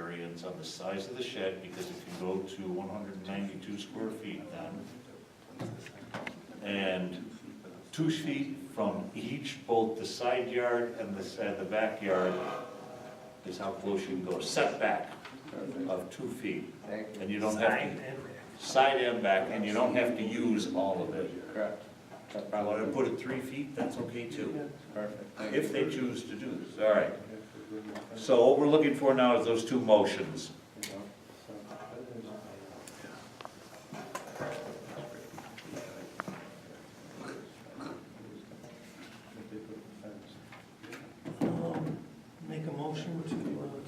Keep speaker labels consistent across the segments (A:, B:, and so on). A: variance on the size of the shed because it can go to 192 square feet now. And two feet from each, both the side yard and the, and the backyard is how close you can go, setback of two feet.
B: Thank
A: And you don't have to, side and back, and you don't have to use all of it.
B: you. Correct. No
A: If I want to
B: problem.
A: put it three feet, that's okay too,
B: Perfect. Thank
A: if
B: you.
A: they choose to do this, all right. So what we're looking for now is those two motions.
C: Um, Make a motion to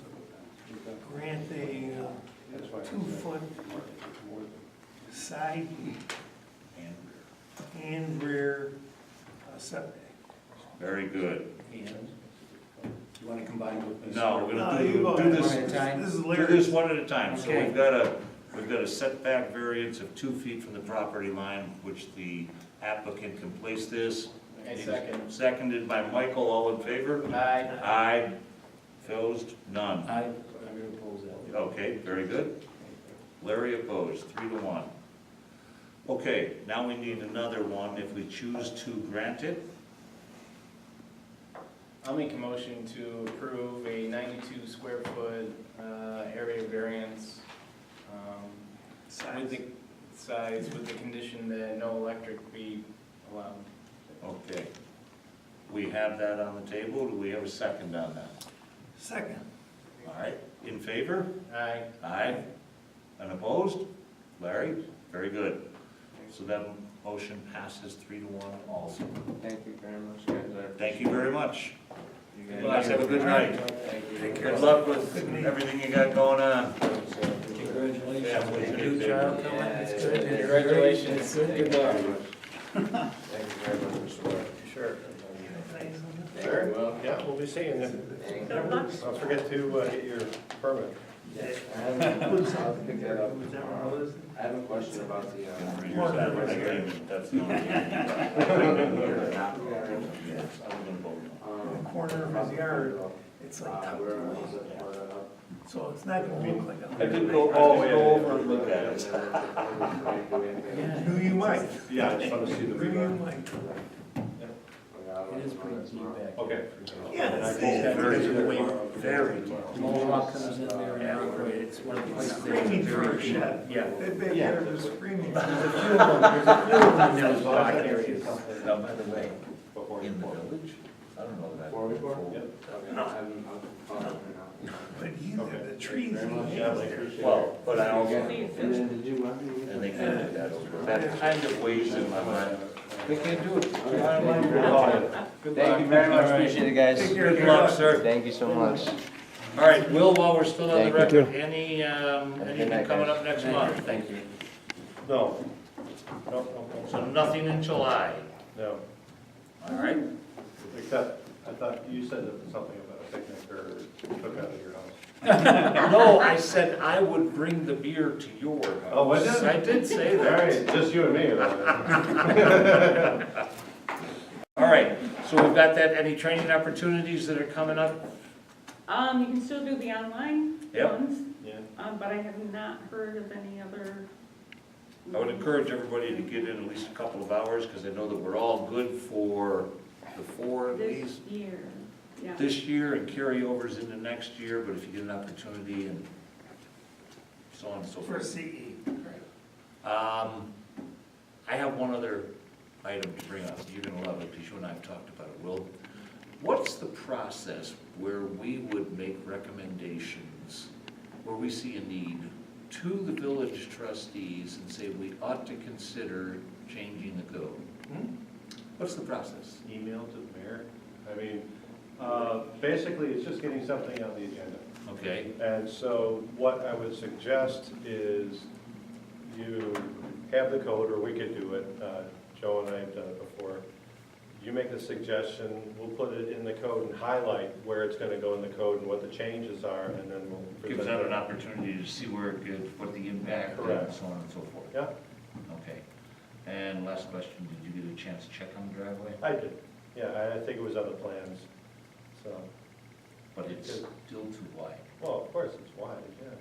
C: uh, grant a uh, two-foot side
A: And
C: and rear uh, setback.
A: Very good.
D: You want to combine with?
A: No, we're
C: No,
A: gonna
C: you
A: do,
C: go
A: do
C: ahead.
A: this,
B: One at a time?
C: This is
A: do this
C: Larry's.
A: one at a time. So
C: Okay.
A: we've got a, we've got a setback variance of two feet from the property line, which the applicant can place this.
D: I second.
A: Seconded by Michael, all in favor?
D: Aye.
A: Aye. Opposed? None.
D: Aye. I'm going to oppose that.
A: Okay, very good. Larry opposed, three to one. Okay, now we need another one if we choose to grant it.
E: I'll make a motion to approve a ninety-two square foot, uh, area variance, um, with the size, with the condition that no electric be allowed.
A: Okay. We have that on the table, do we have a second on that?
C: Second.
A: All right, in favor?
E: Aye.
A: Aye. Unopposed? Larry? Very good. So that motion passes three to one also.
B: Thank you very much, guys.
A: Thank you very much.
B: You
A: You
B: guys-
A: guys have a good night.
B: Thank you.
A: Good luck with everything you got going on.
D: Congratulations.
A: Good job.
D: It's
C: good.
D: Congratulations.
B: Thank you
D: Good luck.
B: very much. Thank you very much, Mr. Lawyer.
D: Sure.
E: Very well.
F: Yeah, we'll be seeing you.
B: Thank you.
F: Don't forget to uh, get your permit.
B: I have a- I'll pick that up tomorrow. I have a question about the, uh,
A: That's the only
B: um,
C: Corner of his yard, it's like
B: uh,
C: tucked
B: where
C: away,
B: was it? Where, uh,
C: so it's not gonna look like
A: I
C: a.
A: did go, oh, go over and look at it.
B: It
C: Who you might,
F: Yeah, I just want to see the
C: who you
F: reverb.
C: might.
D: It is pretty deep back.
F: Okay.
C: Yeah,
A: Very.
D: Mohawk comes in there and operates. It's one of the
C: it's
D: places.
C: screaming for a shed.
D: Yeah.
C: That big yard was screaming.
D: Those back areas.
A: Now, Oh, by the way, in the village, I don't know that.
B: Four before?
A: Yep.
C: But you, the trees.
A: Well, but I also,
B: And then did you want me
A: and they can't do that over. That kind of weighs in my mind.
B: They can't do it.
D: Good
B: Thank you
D: luck.
B: very
D: All
B: much,
D: right.
B: appreciate it, guys.
C: Take care.
A: Good luck, sir.
B: Thank you so much.
A: All right, Will, while we're still on the
B: Thank you.
A: record, any, um,
B: Have a good
A: anything
B: night,
A: coming
B: guys.
A: up next month? Thank you.
F: No. No, no,
A: So nothing in July,
F: no.
A: all right?
F: Except, I thought you said that something about a picnic or cook out of your house.
A: No, I said I would bring the beer to your house.
F: Oh, was it?
A: I did say
F: All
A: that.
F: right, just you and me. then.
A: All right, so we've got that, any training opportunities that are coming up?
G: Um, you can still do the online
A: Yep.
G: ones,
F: Yeah.
G: um, but I have not heard of any other.
A: I would encourage everybody to get in at least a couple of hours, because I know that we're all good for the four at
G: This
A: least
G: year, yeah.
A: this year and carryovers into next year, but if you get an opportunity and so on and so
C: For
A: forth.
C: CE.
A: Um, I have one other item to bring up, you're gonna love it, because you and I have talked about it, Will. What's the process where we would make recommendations, where we see a need, to the village trustees and say we ought to consider changing the code?
F: Hmm?
A: What's the process?
F: Email to the mayor. I mean, uh, basically, it's just getting something on the agenda.
A: Okay,
F: And so what I would suggest is you have the code, or we could do it, uh, Joe and I have done it before. You make the suggestion, we'll put it in the code and highlight where it's gonna go in the code and what the changes are, and then we'll.
A: gives
F: present
A: out an
F: it.
A: opportunity to see where it goes, what the impact, and
F: Correct.
A: so on and so forth.
F: Yeah,
A: Okay, and last question, did you get a chance to check on the driveway?
F: I did, yeah, I- I think it was on the plans, so,
A: But it's still too wide.
F: well, of course, it's wide.